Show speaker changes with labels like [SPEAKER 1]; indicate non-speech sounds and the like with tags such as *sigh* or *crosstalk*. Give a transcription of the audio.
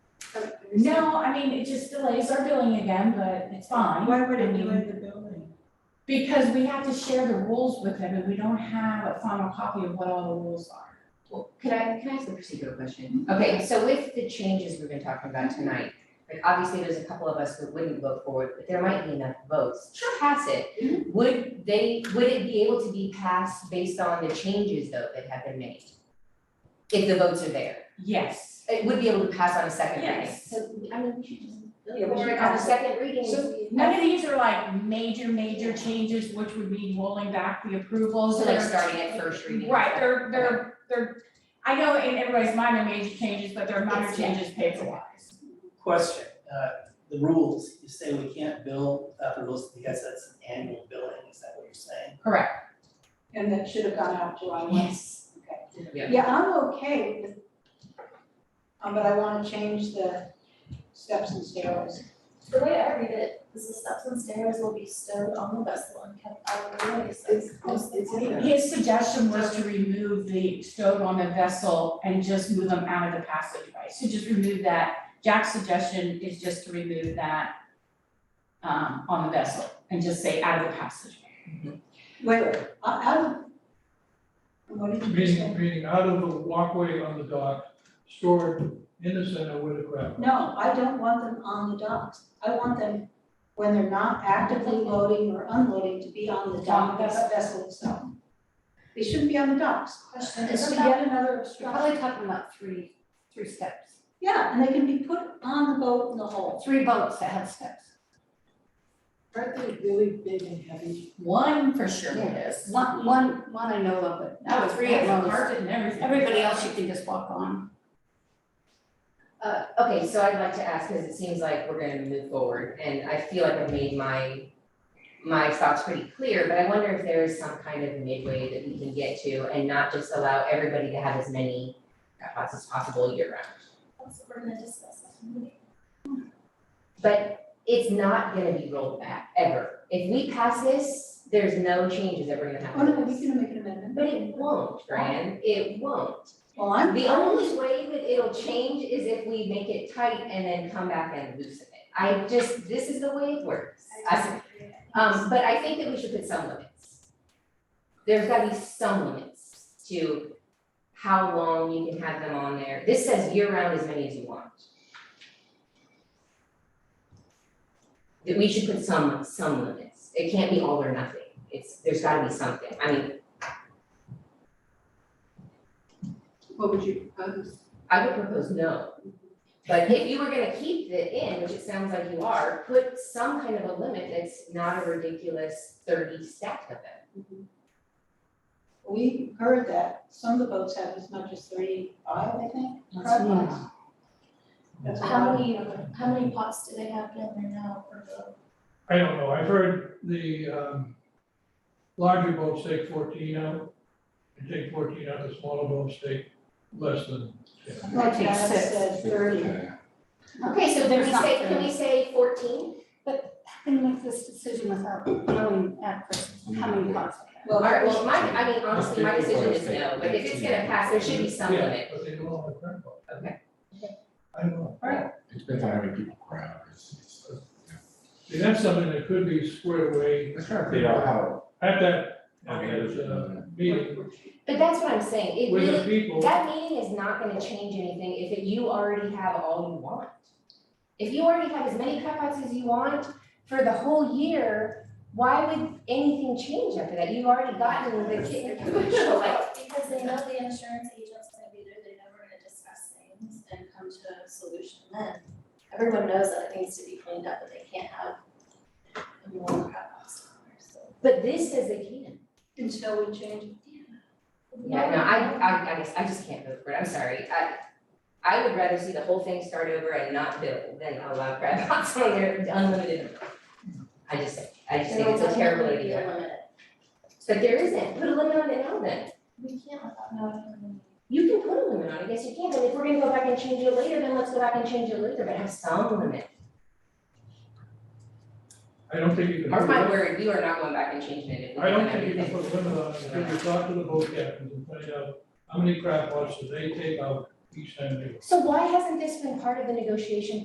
[SPEAKER 1] No, I mean, it just delays our billing again, but it's fine.
[SPEAKER 2] Why would it
[SPEAKER 1] I mean,
[SPEAKER 2] delay the building?
[SPEAKER 1] Because we have to share the rules with them and we don't have a final copy of what all the rules are.
[SPEAKER 3] Well, could I, can I ask a procedural question? Okay, so with the changes we've been talking about tonight, like obviously there's a couple of us that wouldn't vote for it, but there might be enough votes to pass it. Would they, would it be able to be passed based on the changes though that have been made? If the votes are there,
[SPEAKER 1] Yes.
[SPEAKER 3] it would be able to pass on a second reading.
[SPEAKER 1] Yes.
[SPEAKER 4] So, I mean, we should just.
[SPEAKER 3] Yeah, we should have a second reading.
[SPEAKER 1] So- None of these are like major, major changes, which would mean rolling back the approvals.
[SPEAKER 3] So like
[SPEAKER 1] They're-
[SPEAKER 3] starting at first reading.
[SPEAKER 1] Right, they're, they're, they're, I know in everybody's mind are major changes, but they're minor
[SPEAKER 3] It's- yeah.
[SPEAKER 1] changes paper wise.
[SPEAKER 5] Question, uh, the rules, you say we can't bill without the rules because that's an annual billing, is that what you're saying?
[SPEAKER 1] Correct.
[SPEAKER 2] And that should have gone out July one.
[SPEAKER 3] Yes. Yeah.
[SPEAKER 2] Yeah, I'm okay with, um, but I wanna change the steps and stairs.
[SPEAKER 4] The way I read it is the steps and stairs will be stowed on the vessel and kept out of the way, so it's close to the
[SPEAKER 2] Yeah.
[SPEAKER 1] His suggestion was to remove the stove on the vessel and just move them out of the passageway, so just remove that. Jack's suggestion is just to remove that um, on the vessel and just say out of the passageway.
[SPEAKER 2] Wait, I, I, what did you
[SPEAKER 6] Meaning,
[SPEAKER 2] say?
[SPEAKER 6] meaning out of the walkway on the dock, stored in the center with a grab.
[SPEAKER 2] No, I don't want them on the docks. I want them, when they're not actively loading or unloading, to be on the dock, that's a vessel itself. They shouldn't be on the docks.
[SPEAKER 4] Question,
[SPEAKER 2] This
[SPEAKER 4] isn't
[SPEAKER 2] would be
[SPEAKER 4] that,
[SPEAKER 2] yet another
[SPEAKER 4] you're
[SPEAKER 2] obstruction.
[SPEAKER 4] probably talking about three, three steps,
[SPEAKER 2] Yeah, and they can be put on the boat in the hole.
[SPEAKER 4] three boats that have steps.
[SPEAKER 7] Aren't they really big and heavy?
[SPEAKER 1] One for sure is.
[SPEAKER 4] One, one, one I know of, but
[SPEAKER 1] That was
[SPEAKER 4] three at most.
[SPEAKER 1] and everything.
[SPEAKER 4] Everybody else you can just walk on.
[SPEAKER 3] Uh, okay, so I'd like to ask, because it seems like we're gonna move forward, and I feel like I've made my, my thoughts pretty clear, but I wonder if there is some kind of midway that we can get to and not just allow everybody to have as many spots as possible year round.
[SPEAKER 4] That's what we're gonna discuss. at the meeting.
[SPEAKER 3] But it's not gonna be rolled back, ever. If we pass this, there's no changes that we're gonna
[SPEAKER 2] Oh, no,
[SPEAKER 3] have.
[SPEAKER 2] we can make an amendment.
[SPEAKER 3] But it won't, Fran, it won't.
[SPEAKER 2] Well, I'm.
[SPEAKER 3] The only way that it'll change is if we make it tight and then come back and loosen it. I just, this is the way it works. I- Um, but I think that we should put some limits. There's gotta be some limits to how long you can have them on there. This says year round as many as you want. That we should put some, some limits. It can't be all or nothing. It's, there's gotta be something. I mean,
[SPEAKER 7] What would you propose?
[SPEAKER 3] I would propose no. But if you were gonna keep the in, which it sounds like you are, put some kind of a limit that's not a ridiculous thirty stack of them.
[SPEAKER 2] We heard that some of the boats have as much as thirty-five, I think.
[SPEAKER 4] That's a lot.
[SPEAKER 2] Correct? That's a
[SPEAKER 4] How
[SPEAKER 2] lot.
[SPEAKER 4] many, how many pots do they have down there now per boat?
[SPEAKER 6] I don't know, I've heard the, um, larger boats take fourteen out, and take fourteen out, the smaller boats take less than ten.
[SPEAKER 2] Like
[SPEAKER 4] Takes
[SPEAKER 2] Dad
[SPEAKER 4] six.
[SPEAKER 2] said, thirty.
[SPEAKER 3] Okay, so can
[SPEAKER 4] There's
[SPEAKER 3] we
[SPEAKER 4] not
[SPEAKER 3] say,
[SPEAKER 4] thirty.
[SPEAKER 3] can we say fourteen?
[SPEAKER 4] How can you make this decision without knowing at first how many pots they have?
[SPEAKER 2] Well,
[SPEAKER 3] Alright, well, my, I mean, honestly, my decision is no, but if it's gonna pass, there should be some
[SPEAKER 6] Yeah,
[SPEAKER 3] limit.
[SPEAKER 6] but they go on the grab boat.
[SPEAKER 3] Okay.
[SPEAKER 6] I don't know.
[SPEAKER 8] It depends on how many people crowd, it's, it's, uh,
[SPEAKER 6] See, that's something that could be squared away
[SPEAKER 8] let's try to figure out how.
[SPEAKER 6] at that, at
[SPEAKER 8] Okay.
[SPEAKER 6] that, uh, meeting
[SPEAKER 3] But that's what I'm saying, it
[SPEAKER 6] with the
[SPEAKER 3] really,
[SPEAKER 6] people.
[SPEAKER 3] that meeting is not gonna change anything if it- you already have all you want. If you already have as many cutouts as you want for the whole year, why would anything change after that? You've already gotten the kid, like,
[SPEAKER 4] Because they know the insurance agent's gonna be there, they know we're gonna discuss things and come to a solution then. Everyone knows that it needs to be cleaned up, but they can't have more crap box on there, so.
[SPEAKER 3] but this says they can.
[SPEAKER 2] until we change it.
[SPEAKER 3] Yeah, no, I, I, I guess, I just can't vote for it, I'm sorry, I, I would rather see the whole thing start over and not bill than allow *laughs* crab pots on there unlimited. I just, I just think it's a terrible idea, but there isn't, put a limit on it now then.
[SPEAKER 4] We can't without knowing.
[SPEAKER 3] You can put a limit on it, yes, you can, but if we're gonna go back and change it later, then let's go back and change it later, but have some limit.
[SPEAKER 6] I don't think you can.
[SPEAKER 3] Mark
[SPEAKER 6] do that.
[SPEAKER 3] my word, we are not going back and changing it if we
[SPEAKER 6] I
[SPEAKER 3] don't
[SPEAKER 6] don't
[SPEAKER 3] have
[SPEAKER 6] think you
[SPEAKER 3] anything.
[SPEAKER 6] can put a limit on it, you can talk to the boat captains and find out how many crab pots do they take out each time they
[SPEAKER 3] So why hasn't this been part of the negotiation